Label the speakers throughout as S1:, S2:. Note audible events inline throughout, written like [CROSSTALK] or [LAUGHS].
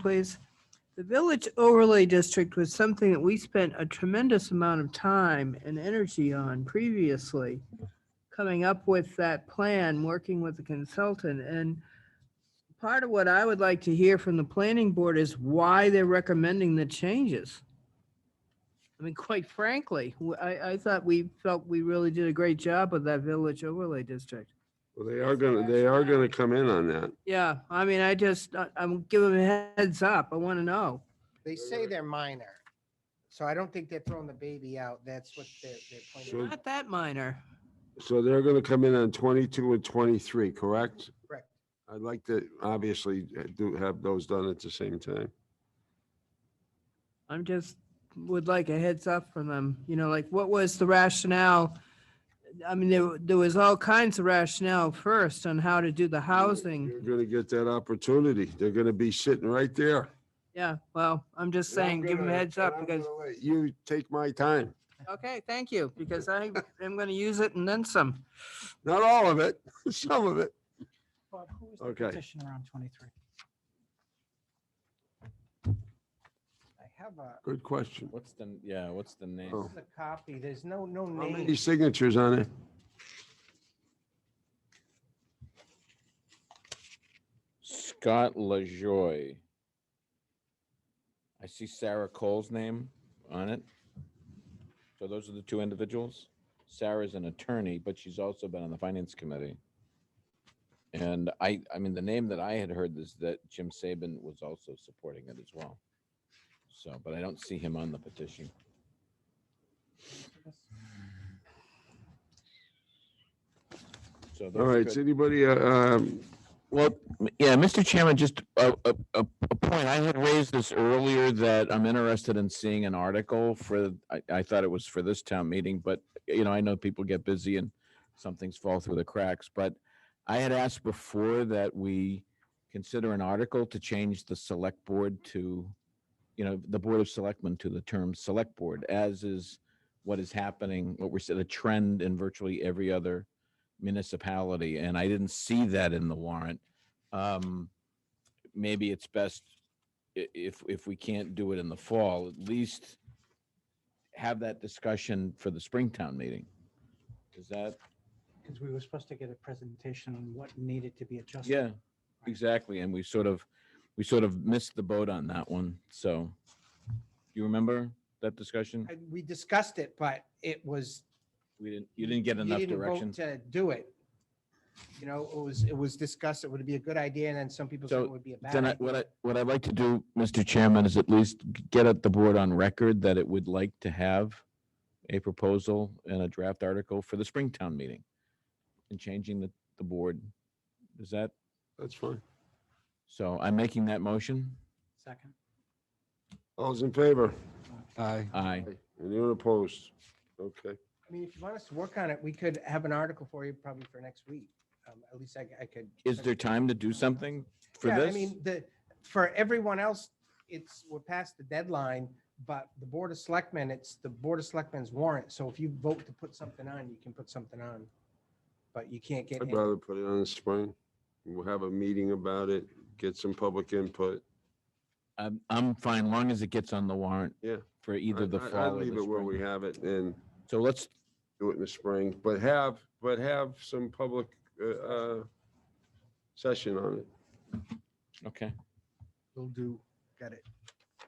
S1: please. The village overlay district was something that we spent a tremendous amount of time and energy on previously. Coming up with that plan, working with the consultant and part of what I would like to hear from the planning board is why they're recommending the changes. I mean, quite frankly, w- I, I thought we felt we really did a great job with that village overlay district.
S2: Well, they are gonna, they are gonna come in on that.
S1: Yeah, I mean, I just, I- I'm giving a heads up. I want to know.
S3: They say they're minor. So I don't think they're throwing the baby out. That's what they're, they're
S2: So-
S3: pointing out.
S1: Not that minor.
S2: So they're gonna come in on twenty-two and twenty-three, correct?
S3: Correct.
S2: I'd like to obviously uh, do have those done at the same time.
S1: I'm just, would like a heads up from them, you know, like what was the rationale? I mean, there, wa- there was all kinds of rationale first on how to do the housing.
S2: You're gonna get that opportunity. They're gonna be sitting right there.
S1: Yeah, well, I'm just saying, give them a heads up because
S2: You take my time,
S1: Okay, thank you, because I am going to use it and then some.
S2: not all of it, [LAUGHS] some of it.
S4: Bob, who was the
S2: Okay.
S4: petitioner on 23?
S3: I have a,
S2: Good question.
S5: What's the, n- yeah, what's the
S2: Oh.
S5: name?
S3: this is a copy. There's no, no
S2: How many
S3: name.
S2: signatures on it?
S5: Scott LaJoy. I see Sarah Cole's name on it. So those are the two individuals. Sarah's an attorney, but she's also been on the finance committee. And I, I mean, the name that I had heard is that Jim Saban was also supporting it as well. So, but I don't see him on the petition. So those
S2: All
S5: are
S2: right,
S5: good.
S2: does anybody, uh, um,
S5: Well, m- yeah, Mr. Chairman, just a, a, a a point. I had raised this earlier that I'm interested in seeing an article for, I, I thought it was for this town meeting, but, you know, I know people get busy and some things fall through the cracks, but I had asked before that we consider an article to change the select board to, you know, the Board of Selectmen to the term select board, as is what is happening, what we're, s- the trend in virtually every other municipality, and I didn't see that in the warrant. Um, maybe it's best i- if, if we can't do it in the fall, at least have that discussion for the Springtown meeting. Is that,
S4: Because we were supposed to get a presentation on what needed to be adjusted.
S5: yeah, exactly, and we sort of, we sort of missed the boat on that one, so. You remember that discussion?
S3: I- We discussed it, but it was.
S5: We didn't, you didn't get enough
S3: didn't vote
S5: direction.
S3: To do it. You know, it was, it was discussed. It would be a good idea. And then some people said
S5: So
S3: it would be a bad
S5: Then I, what
S3: idea.
S5: I, what I'd like to do, Mr. Chairman, is at least g- get at the board on record that it would like to have a proposal and a draft article for the Springtown meeting and changing the, the board. Is that,
S2: that's fine.
S5: so I'm making that motion?
S4: Second.
S2: All's in favor?
S6: Aye.
S5: Aye.
S2: Anyone opposed? Okay.
S3: I mean, if you want us to work on it, we could have an article for you probably for next week. Um, At least I, I could.
S5: Is there time to do something for
S3: Yeah, I
S5: this?
S3: mean, the, for everyone else, it's, we're past the deadline, but the Board of Selectmen, it's the Board of Selectmen's warrant. So if you vote to put something on, you can put something on. But you can't get,
S2: I'd
S3: any-
S2: rather put it on the spring. We'll have a meeting about it, get some public input.
S5: I'm, I'm fine, long as it gets on the warrant.
S2: Yeah.
S5: For either
S2: I-
S5: the
S2: I- I'd
S5: fall or
S2: Leave
S5: the
S2: it where we
S5: spring.
S2: have it and
S5: So let's,
S2: do it in the spring, but have, but have some public, uh, uh, session on it.
S5: okay.
S3: will do, got it.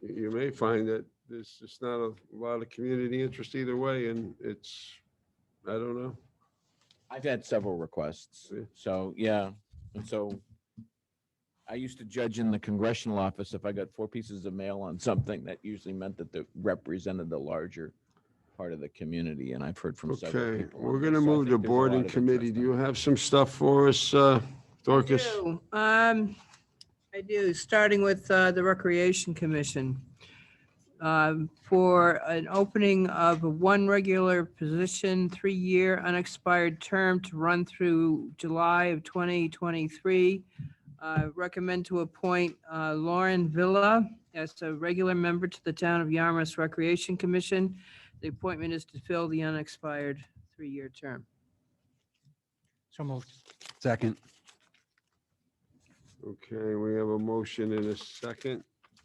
S2: You- You may find that there's just not a lot of community interest either way and it's, I don't know.
S5: I've had several requests,
S2: Yeah.
S5: so, yeah, and so I used to judge in the congressional office, if I got four pieces of mail on something, that usually meant that they represented the larger part of the community, and I've heard from several
S2: Okay,
S5: people. on
S2: we're
S5: this,
S2: gonna
S5: so I
S2: move
S5: think
S2: to
S5: there's a
S2: board
S5: lot
S2: and
S5: of
S2: committee.
S5: interest
S2: Do
S5: on
S2: you
S5: it.
S2: have some stuff for us, uh, Dorcas?
S1: do, Um, I do, starting with uh, the Recreation Commission. um, For an opening of one regular position, three-year unexpired term to run through July of 2023. Uh, Recommend to appoint uh, Lauren Villa as a regular member to the Town of Yarmouth Recreation Commission. The appointment is to fill the unexpired three-year term.
S4: So moved.
S6: Second.
S2: Okay, we have a motion and a second.